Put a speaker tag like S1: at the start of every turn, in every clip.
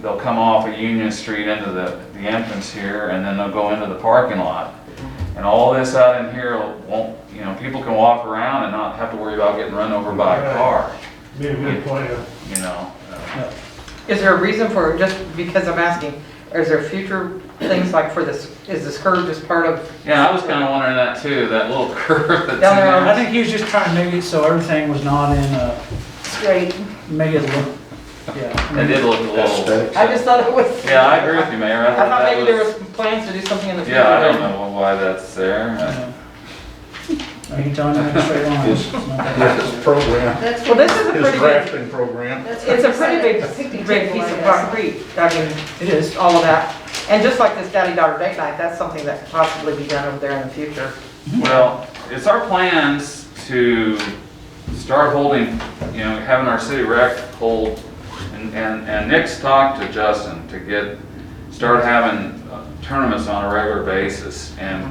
S1: they'll come off of Union Street into the, the entrance here, and then they'll go into the parking lot. And all this out in here won't, you know, people can walk around and not have to worry about getting run over by a car,
S2: Be a good plan.
S1: you know? Uh,
S3: Is there a reason for, just because I'm asking, is there future things like for this, is this curve just part of?
S1: Yeah, I was kinda wondering that too, that little curve that's in
S3: Down there.
S1: there.
S4: I think he was just trying to make it so everything was not in, uh,
S3: Straight.
S4: make it look, yeah.
S1: It did look a little.
S3: I just thought it was.
S1: Yeah, I agree with you, Mayor.
S3: I thought
S1: that
S3: maybe there was plans to do something in the future.
S1: Yeah, I don't know why that's there. Uh,
S4: I can tell him in a straight line.
S5: Yes.
S4: It's not that
S5: This is
S4: hard.
S5: program,
S6: That's
S3: Well,
S6: what,
S3: this is a
S5: his
S3: pretty big,
S5: drafting program.
S6: that's what
S3: it's a
S6: you
S3: pretty
S6: said.
S3: big, big piece of concrete, I mean,
S4: It is.
S3: all of that. And just like this daddy-daughter date night, that's something that could possibly be done over there in the future.
S1: Well, it's our plans to start holding, you know, having our city rec hold, and, and and Nick's talked to Justin to get, start having uh, tournaments on a regular basis. And,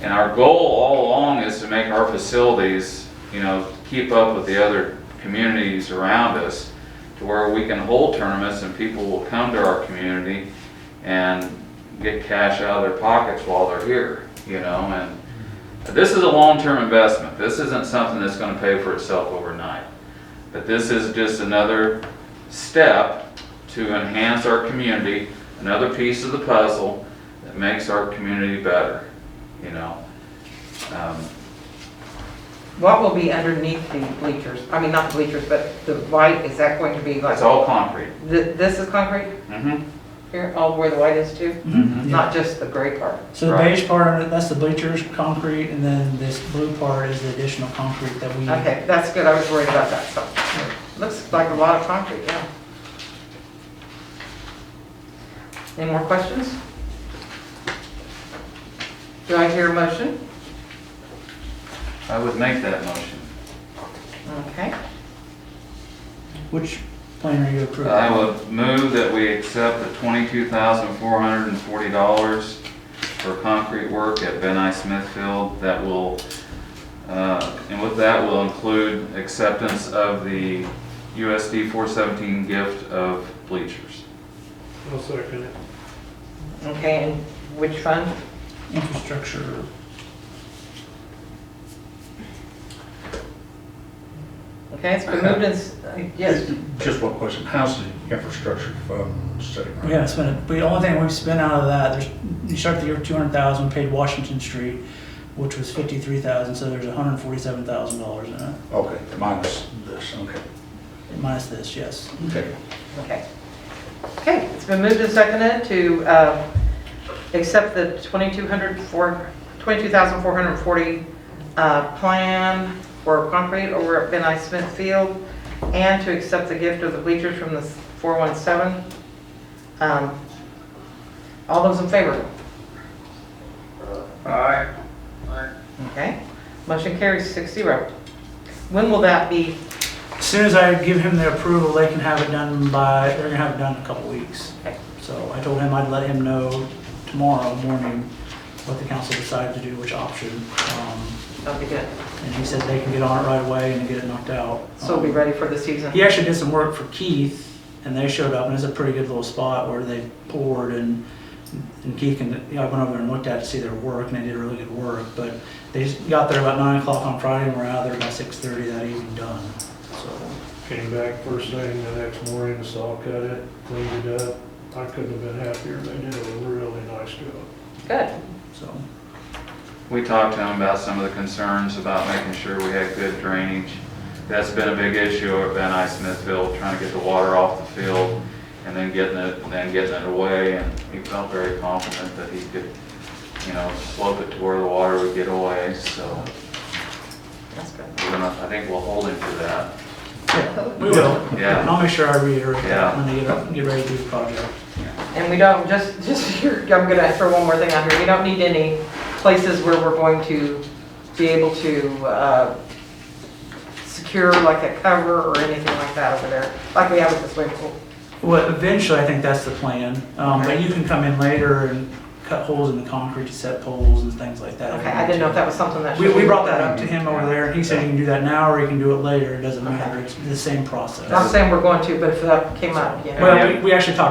S1: and our goal all along is to make our facilities, you know, keep up with the other communities around us to where we can hold tournaments and people will come to our community and get cash out of their pockets while they're here, you know, and this is a long-term investment. This isn't something that's gonna pay for itself overnight. But this is just another step to enhance our community, another piece of the puzzle that makes our community better, you know? Um,
S3: What will be underneath the bleachers? I mean, not the bleachers, but the white, is that going to be like,
S1: It's all concrete.
S3: Th- this is concrete
S1: Mm-hmm.
S3: here, all where the white is too?
S4: Mhm. Yeah.
S3: Not just the gray part?
S4: So the
S1: Right.
S4: beige part, of it, that's the bleachers, concrete, and then this blue part is the additional concrete that we.
S3: Okay, that's good, I was worried about that, so. Looks like a lot of concrete, yeah. Any more questions? Do I hear a motion?
S1: I would make that motion.
S3: Okay,
S4: Which plan are you approving?
S1: I would move that we accept the twenty-two thousand four hundred and forty dollars for concrete work at Ben I Smithfield that will, uh, and with that will include acceptance of the USD four seventeen gift of bleachers.
S2: I'll second it.
S3: okay, and which fund?
S4: Infrastructure.
S3: Okay, it's been moved and, s- yes,
S5: Just one question, how's the infrastructure fund sitting right
S4: We haven't spent, it. the only thing we've spent out of that, there's, you start the year with two hundred thousand, paid Washington Street, which was fifty-three thousand, so there's hundred and forty-seven thousand dollars in it,
S5: Okay, minus this, okay.
S4: minus this, yes.
S5: Okay.
S3: okay. Okay, it's been moved and seconded to uh, accept the 2,200 for- 22,440 uh, plan for concrete over at Ben I Smith Field and to accept the gift of the bleachers from the 417. Um, All those in favor?
S2: Aye.
S3: Okay, motion carries six zero. When will that be?
S4: As Soon as I give him the approval, they can have it done by, they're gonna have it done in a couple weeks.
S3: Okay.
S4: So I told him I'd let him know tomorrow morning what the council decided to do, which option. Um,
S3: That'll be good.
S4: And he said they can get on it right away and get it knocked out. Um,
S3: So we'll be ready for the season.
S4: He actually did some work for Keith, and they showed up, and it's a pretty good little spot where they poured, and, and Keith and, you know, I went over there and looked at it to see their work, and they did really good work, but they just got there about nine o'clock on Friday, and were out there by six thirty that evening done, so.
S2: Came back first thing the next morning, saw cut it, cleaned it up. I couldn't have been happier. They did a really nice job.
S3: Good.
S4: So,
S1: We talked to them about some of the concerns about making sure we had good drainage. That's been a big issue at Van I Smithfield, trying to get the water off the field and then getting it, then getting it away. And he felt very confident that he could, you know, slope it to where the water would get away, so
S3: That's good.
S1: we're gonna, I think we'll hold him to that.
S4: we will.
S1: Yeah.
S4: And I'll make sure I reiterate that
S1: Yeah.
S4: when they get, up- get ready to do the project.
S3: And we don't, just, just, here- I'm gonna ask for one more thing on here, we don't need any places where we're going to be able to, uh, secure like a cover or anything like that over there, like we have with the swimming pool.
S4: Well, eventually, I think that's the plan, um, but you can come in later and cut holes in the concrete to set poles and things like that. if you
S3: Okay, I
S4: want
S3: didn't know
S4: to.
S3: if that was something that.
S4: We,
S3: should
S4: we
S3: be-
S4: brought that up to him over there, and he said you can do that now, or you can do it later, it doesn't matter,
S3: Okay.
S4: it's the same process.
S3: Not saying we're going to, but if that came up, you know.
S4: Well, we, we actually talked